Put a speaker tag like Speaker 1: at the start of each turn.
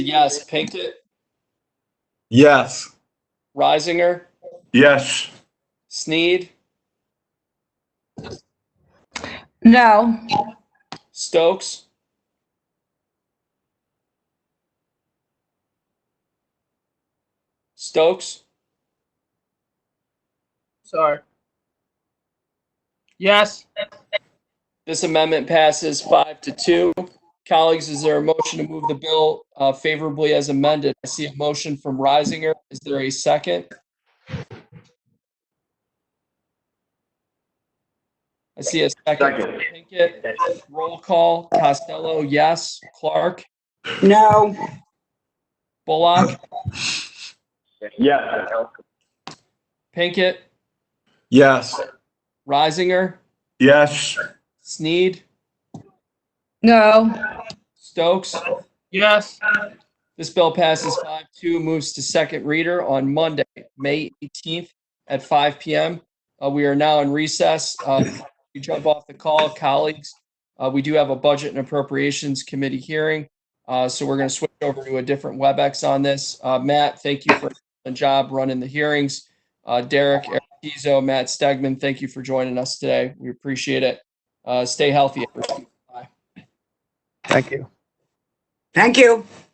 Speaker 1: Yes. Pinkett,
Speaker 2: Yes.
Speaker 1: Risinger,
Speaker 2: Yes.
Speaker 1: Sneed,
Speaker 3: No.
Speaker 1: Stokes, Stokes,
Speaker 4: Sorry. Yes.
Speaker 1: this amendment passes five to two. Colleagues, is there a motion to move the bill uh, favorably as amended? I see a motion from Risinger. Is there a second? I see a second. from Pinkett. Roll call. Costello, yes. Clark,
Speaker 5: No.
Speaker 1: Bullock,
Speaker 2: Yes.
Speaker 1: Pinkett,
Speaker 2: Yes.
Speaker 1: Risinger,
Speaker 2: Yes.
Speaker 1: Sneed,
Speaker 3: No.
Speaker 1: Stokes.
Speaker 4: Yes.
Speaker 1: This bill passes five two, moves to second reader on Monday, May eighteenth at five PM. Uh, we are now in recess. Uh, you jump off the call, colleagues. Uh, we do have a Budget and Appropriations Committee hearing. Uh, so we're gonna switch over to a different WebEx on this. Uh, Matt, thank you for the job running the hearings. Uh, Derek, Eric Pizzo, Matt Stegman, thank you for joining us today. We appreciate it. Uh, stay healthy, everyone.
Speaker 5: Thank you.